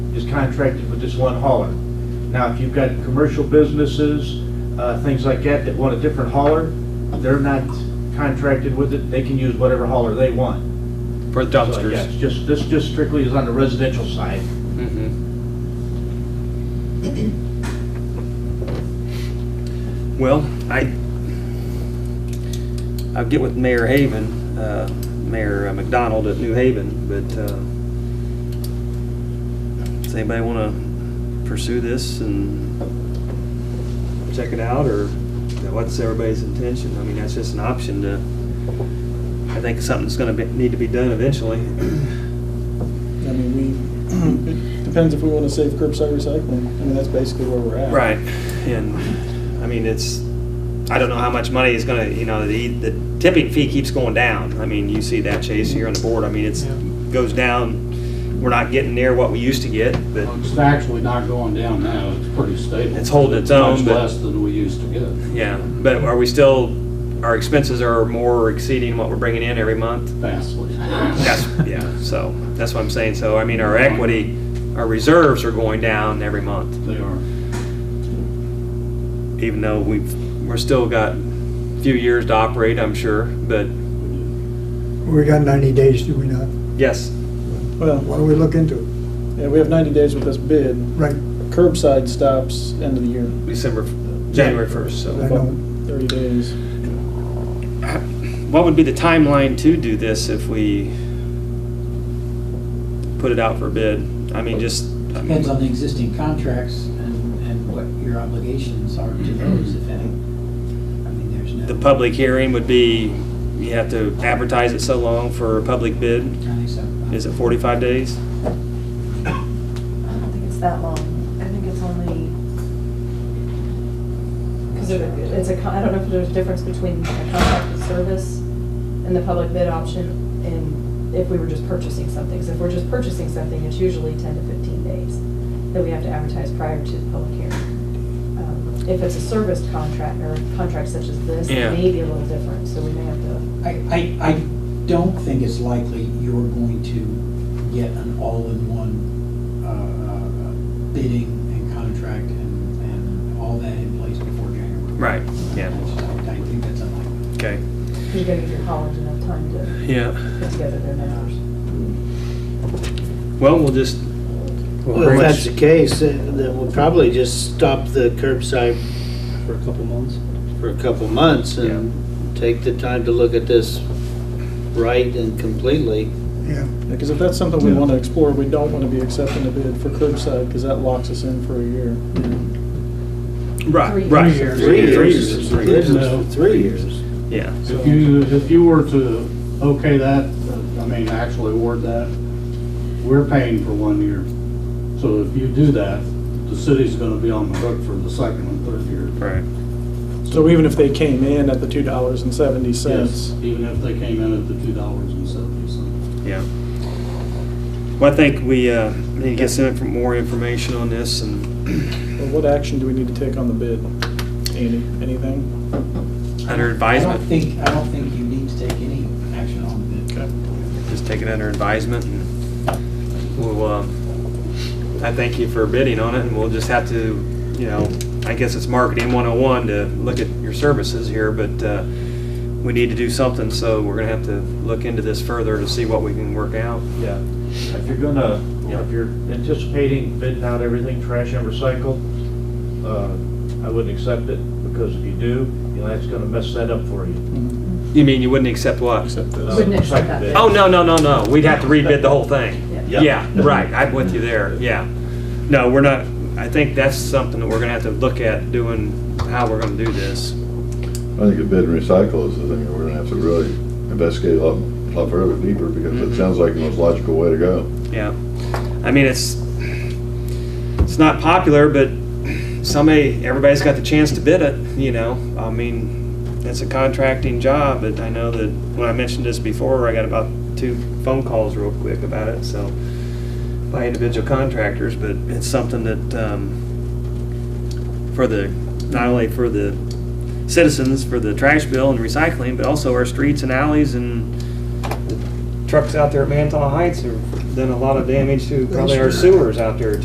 is contracted with this one hauler. Now, if you've got commercial businesses, uh, things like that, that want a different hauler, they're not contracted with it, they can use whatever hauler they want. for So, yeah, it's dumpsters. just, this just strictly is on the residential side. Mhm. Well, I, I'll get with Mayor Haven, uh, Mayor McDonald at New Haven, but uh, does anybody want to pursue this and check it out, or what's everybody's intention? I mean, that's just an option to, I think something's going to need to be done eventually. I mean, we, it depends if we want to save curbside recycling. I mean, that's basically where we're at. Right, and, I mean, it's, I don't know how much money is gonna, you know, the, the tipping fee keeps going down. I mean, you see that, Chase, here on the board, I mean, it's, Yeah. goes down, we're not getting near what we used to get, but, Well, It's actually not going down now, it's pretty stable. It's holding its own, Much but- less than we used to get. yeah. But are we still, our expenses are more exceeding what we're bringing in every month? Vastly. That's, yeah, so, that's what I'm saying, so, I mean, our equity, our reserves are going down every month. They are. even though we've, we're still got a few years to operate, I'm sure, but We got 90 days, do we not? yes, Why Well, don't we look into it? yeah, we have 90 days with this bid. Right, Curbside stops end of the year. December, January 1st, I so. know. 30 days. What would be the timeline to do this if we put it out for bid? I mean, just, I Depends on mean, the existing contracts and, and what your obligations are to those, if any. I mean, there's no. Mm-hmm. the public hearing would be, you have to advertise it so long for a public bid. I think so. Is it 45 days? I don't think it's that long. I think it's only, because it's a, con- I don't know if there's a difference between a contracted service and the public bid option and if we were just purchasing something. Because if we're just purchasing something, it's usually 10 to 15 days that we have to advertise prior to the public hearing. Um, If it's a serviced contract or a contract such as this, Yeah. it may be a little different, so we may have to I, I, I don't think it's likely you're going to get an all-in-one uh, uh, bidding and contract and, and all that in place before January. Right, yeah. I I think that's unlikely. Okay. You're gonna give your college enough time to Yeah. put together their numbers. Well, we'll just. we'll Well, if pretty much- that's the case, then then we'll probably just stop the curbside For a couple months? for a couple months and take the time to look at this right and completely. yeah. Because if that's something we want to explore, we don't want to be accepting a bid for curbside because that locks us in for a year. Right, Three right. years. Three years. Three years. Yeah. If you, if you were to okay that, uh, I mean, actually award that, we're paying for one year. So if you do that, the city's gonna be on the hook for the second and third year. Right. So even if they came in at the $2.70, Even if they came in at the two dollars and seventy cents. Yeah. Well, I think we uh, need to get some inf- more information on this and well, what action do we need to take on the bid? Andy, anything? under I don't advisement, think, I don't think you need to take any action on the bid. Okay. just take it under advisement and we'll, uh, I thank you for bidding on it and we'll just have to, you know, I guess it's marketing 101 to look at your services here, but uh, we need to do something, so we're gonna have to look into this further to see what we can work out. Yeah, if you're gonna, you know, if you're anticipating bidding out everything trash and recycle, uh, I wouldn't accept it, because if you do, you know, that's gonna mess that up for you. You mean you wouldn't accept what? Accept Uh, this. Wouldn't accept that. recycle bid. Oh, no, no, no, no. We'd have to rebid the whole thing. Yeah. Yeah, right. I'm with you there. Yeah. No, we're not, I think that's something that we're gonna have to look at doing, how we're gonna do this. I think the bid and recycle is the thing that we're gonna have to really investigate a lot, a lot further, deeper, because Mhm. it sounds like the most logical way to go. Yeah. I mean, it's, it's not popular, but somebody, everybody's got the chance to bid it, you know? I mean, it's a contracting job, but I know that when I mentioned this before, I got about two phone calls real quick about it, so, by individual contractors, but it's something that, um, for the, not only for the citizens, for the trash bill and recycling, but also our streets and alleys and the trucks out there at Mantle Heights have done a lot of damage to probably our sewers out there